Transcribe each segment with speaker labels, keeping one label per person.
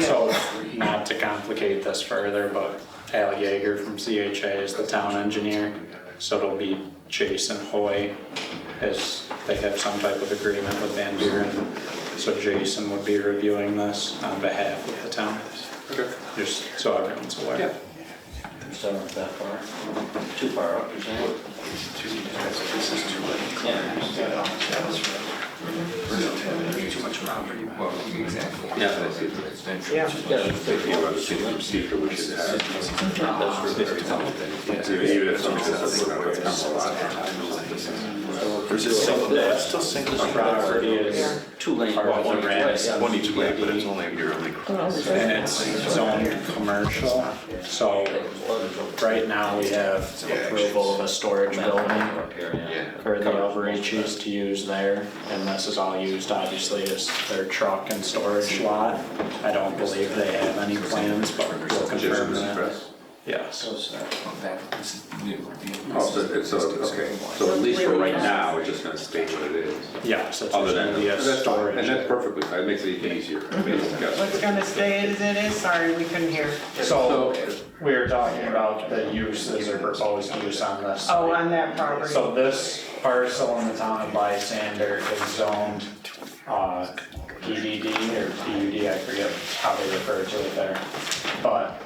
Speaker 1: So, not to complicate this further, but Al Yeager from CHA is the town engineer. So it'll be Jason Hoy, as they have some type of agreement with Van Buren. So Jason would be reviewing this on behalf of the town,
Speaker 2: Okay.
Speaker 1: just so everyone's aware.
Speaker 3: So not that far, too far up, you're saying?
Speaker 2: This is too late.
Speaker 3: Yeah.
Speaker 2: Too much property.
Speaker 4: Well, exactly.
Speaker 3: Yeah.
Speaker 4: That's it, it's natural.
Speaker 3: Yeah, it's pretty
Speaker 5: You know,
Speaker 3: far.
Speaker 5: the city procedure we should have.
Speaker 3: That's really
Speaker 4: Very
Speaker 3: tough.
Speaker 4: Yeah.
Speaker 5: Even if something that's something that's come alive.
Speaker 1: So
Speaker 3: That's
Speaker 1: this
Speaker 3: still single.
Speaker 1: property is,
Speaker 3: Two lane.
Speaker 1: Part of one ramp.
Speaker 5: One each way, but it's only a yearly.
Speaker 1: and it's zoned commercial, so right now we have approval of a storage building.
Speaker 3: Yeah.
Speaker 1: for the overages to use there, and this is all used obviously as their truck and storage lot. I don't believe they have any plans, but we'll confirm
Speaker 5: Jason's
Speaker 1: that.
Speaker 5: Express.
Speaker 1: Yes.
Speaker 4: Well, that- this is new.
Speaker 5: Oh, so it's, so, okay, so at least for right now, we're just gonna state what it is.
Speaker 1: Yes, it's
Speaker 5: Other than,
Speaker 1: gonna be a
Speaker 5: that's fine, and that's
Speaker 1: storage.
Speaker 5: perfectly, fine. that makes it even easier. I mean, it's got-
Speaker 6: What's gonna stay as it is, sorry, we couldn't hear.
Speaker 1: So, we were talking about the uses or proposed use on this.
Speaker 6: Oh,
Speaker 1: site.
Speaker 6: on that property.
Speaker 1: So this parcel in the town of Lysander is zoned, uh, PDD or PUD, I forget how they refer to it there. But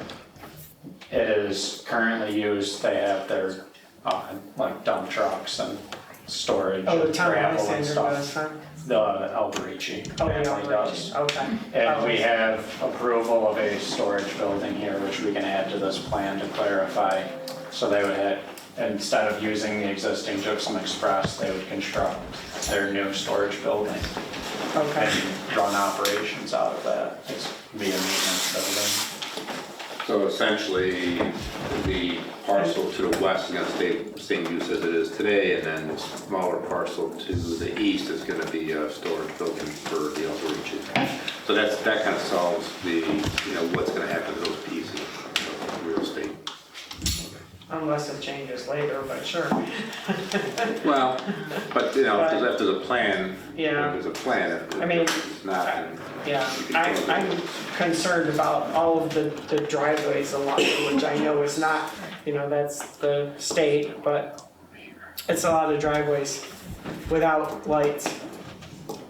Speaker 1: it is currently used, they have their, uh, like dump trucks and storage
Speaker 6: Oh, the
Speaker 1: and
Speaker 6: town of
Speaker 1: gravel and
Speaker 6: Alexander does,
Speaker 1: stuff.
Speaker 6: huh?
Speaker 1: The Alberici
Speaker 6: Oh,
Speaker 1: family
Speaker 6: yeah,
Speaker 1: does.
Speaker 6: right, okay. Oh,
Speaker 1: And we have approval of a storage building here, which we can add to this plan to clarify. So they would have, instead of using the existing Gypsum Express, they would construct their new storage building
Speaker 6: Okay,
Speaker 1: and run operations out of that. It's be a maintenance building.
Speaker 5: So essentially, the parcel to the west is gonna stay the same use as it is today, and then the smaller parcel to the east is gonna be a storage building for the upper reaches. So that's, that kind of solves the, you know, what's gonna happen to those pieces of real estate.
Speaker 6: unless it changes later, but sure.
Speaker 5: Well, but, you know, because if there's a plan, if
Speaker 6: Yeah.
Speaker 5: there's a plan, if
Speaker 6: I mean,
Speaker 5: it's not, then
Speaker 6: Yeah, I, I'm concerned about all of the, the driveways along, it, which I know is not, you know, that's the state, but it's a lot of driveways without lights.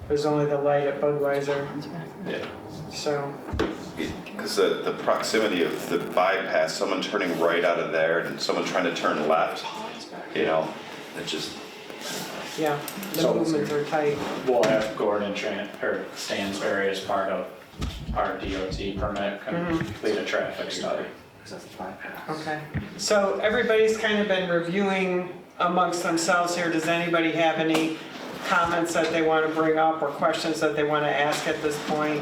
Speaker 6: There's only the light at Budweiser,
Speaker 1: Yeah.
Speaker 6: so,
Speaker 7: Because the, the proximity of the bypass, someone turning right out of there and someone trying to turn left, you know, it just,
Speaker 6: yeah, the
Speaker 1: So-
Speaker 6: movements are tight.
Speaker 1: We'll have Gordon Tran, or Stansberry as part of our DOT permit, complete a traffic study.
Speaker 6: Okay, so everybody's kind of been reviewing amongst themselves here. Does anybody have any comments that they want to bring up or questions that they want to ask at this point?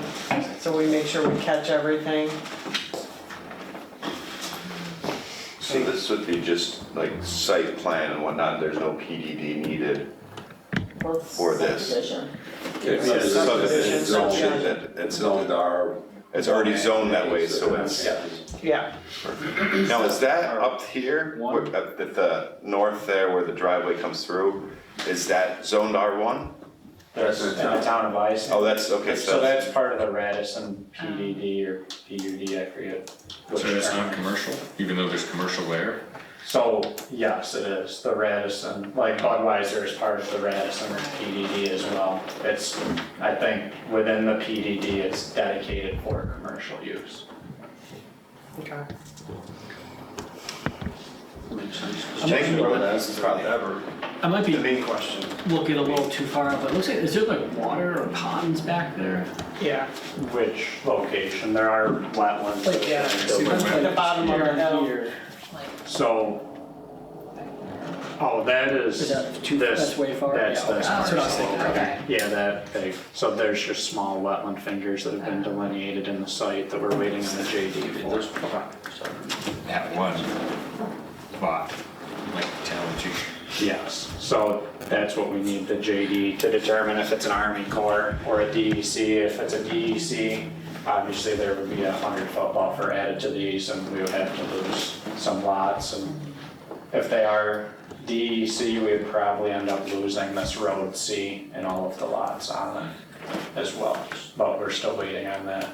Speaker 6: So we make sure we catch everything.
Speaker 7: so this would be just like site plan and whatnot, there's no PDD needed. For this.
Speaker 5: It's
Speaker 6: Yeah,
Speaker 5: it's-
Speaker 6: subdivision,
Speaker 5: it's zoned-
Speaker 6: subdivision.
Speaker 5: It's zoned R.
Speaker 7: It's already zoned that way, so it's,
Speaker 1: Yeah.
Speaker 6: Yeah,
Speaker 7: now is that up here, where- at at the north there where the driveway comes through, is that zoned R1?
Speaker 1: There's, in the town of Ice.
Speaker 7: Oh, that's, okay,
Speaker 1: So
Speaker 7: so,
Speaker 1: that's part of the Radisson
Speaker 6: Oh.
Speaker 1: PDD or PUD, I forget. which
Speaker 4: So it's
Speaker 1: term.
Speaker 4: not commercial, even though there's commercial there?
Speaker 1: So, yes, it is, the Radisson, like Budweiser is part of the Radisson PDD as well. It's, I think, within the PDD, it's dedicated for commercial use.
Speaker 6: okay.
Speaker 7: Jacob, that's probably ever.
Speaker 8: I might be
Speaker 7: main question.
Speaker 8: looking a little too far up, but it looks like, is there like water or ponds back there?
Speaker 6: Yeah,
Speaker 1: Which location, there are wetlands.
Speaker 6: Like, yeah.
Speaker 4: See the
Speaker 6: at the
Speaker 4: wetland?
Speaker 6: bottom of the hill.
Speaker 8: Here.
Speaker 1: So, oh, that is
Speaker 8: Is that too,
Speaker 1: this-
Speaker 8: that's way far?
Speaker 1: That's
Speaker 8: Yeah, okay.
Speaker 1: this
Speaker 8: That's what I was
Speaker 1: parcel.
Speaker 8: thinking, okay.
Speaker 1: Yeah, that big. So there's just small wetland fingers that have been
Speaker 8: Uh-huh.
Speaker 1: delineated in the site that we're waiting on the JD for.
Speaker 4: That one lot, like town two.
Speaker 1: Yes, so that's what we need the JD to determine if it's an Army Corps or a DEC. If it's a DEC, obviously there would be a hundred foot buffer added to these and we would have to lose some lots and if they are E DEC, we'd probably end up losing this road C and all of the lots on it as well. But we're still waiting on that.